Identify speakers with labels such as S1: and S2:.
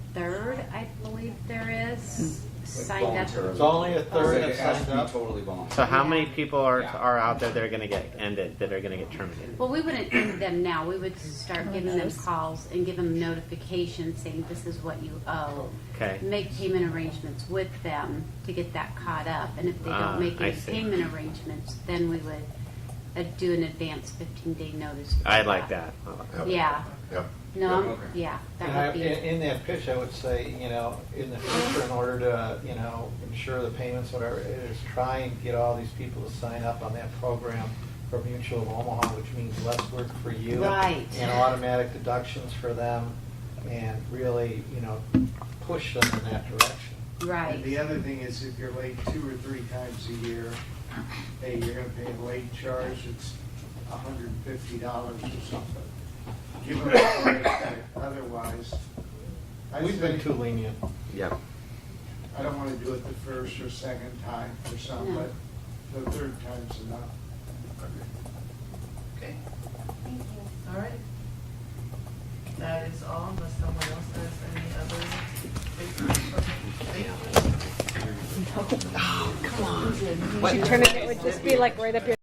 S1: third, I believe there is,
S2: Hmm.
S3: Like
S1: signed up.
S3: voluntarily.
S4: It's only a third
S3: It
S4: have
S3: has to
S4: signed
S3: be
S4: up.
S3: Totally voluntary.
S2: So how
S1: Yeah.
S2: many people are
S3: Yeah.
S2: are out there that are going to get ended, that are going to get terminated?
S1: Well, we wouldn't end them now. We would
S2: Oh,
S1: start giving them calls and give them notifications saying this is what you owe.
S2: Okay.
S1: Make payment arrangements with them to get that caught up. And if they
S2: Ah,
S1: don't make
S2: I
S1: any
S2: see.
S1: payment arrangements, then we would uh, do an advance fifteen day notice. for
S2: I like that. I like that.
S1: Yeah.
S5: Yep.
S1: No, I'm-
S3: Okay.
S1: yeah,
S4: And I,
S1: that would
S4: in,
S1: be,
S4: in that pitch, I would say, you know, in the future, in order to, you know, ensure the payments, whatever, it is try and get all these people to sign up on that program for Mutual of Omaha, which means less work for you.
S1: Right.
S4: And automatic deductions for them, and really, you know, push them in that direction.
S6: And the
S1: right.
S6: other thing is if you're late two or three times a year, hey, you're gonna pay a late charge, it's hundred and fifty dollars or something. Give them a break, otherwise. I
S4: We've been
S6: say-
S4: too lenient.
S2: Yep.
S6: I don't wanna do it the first or second time or something,
S1: No.
S6: but the third time's enough.
S7: Okay. All right. That is all, unless someone else has any other papers for me. Thank you.
S8: Should turn it, it would just be like right up your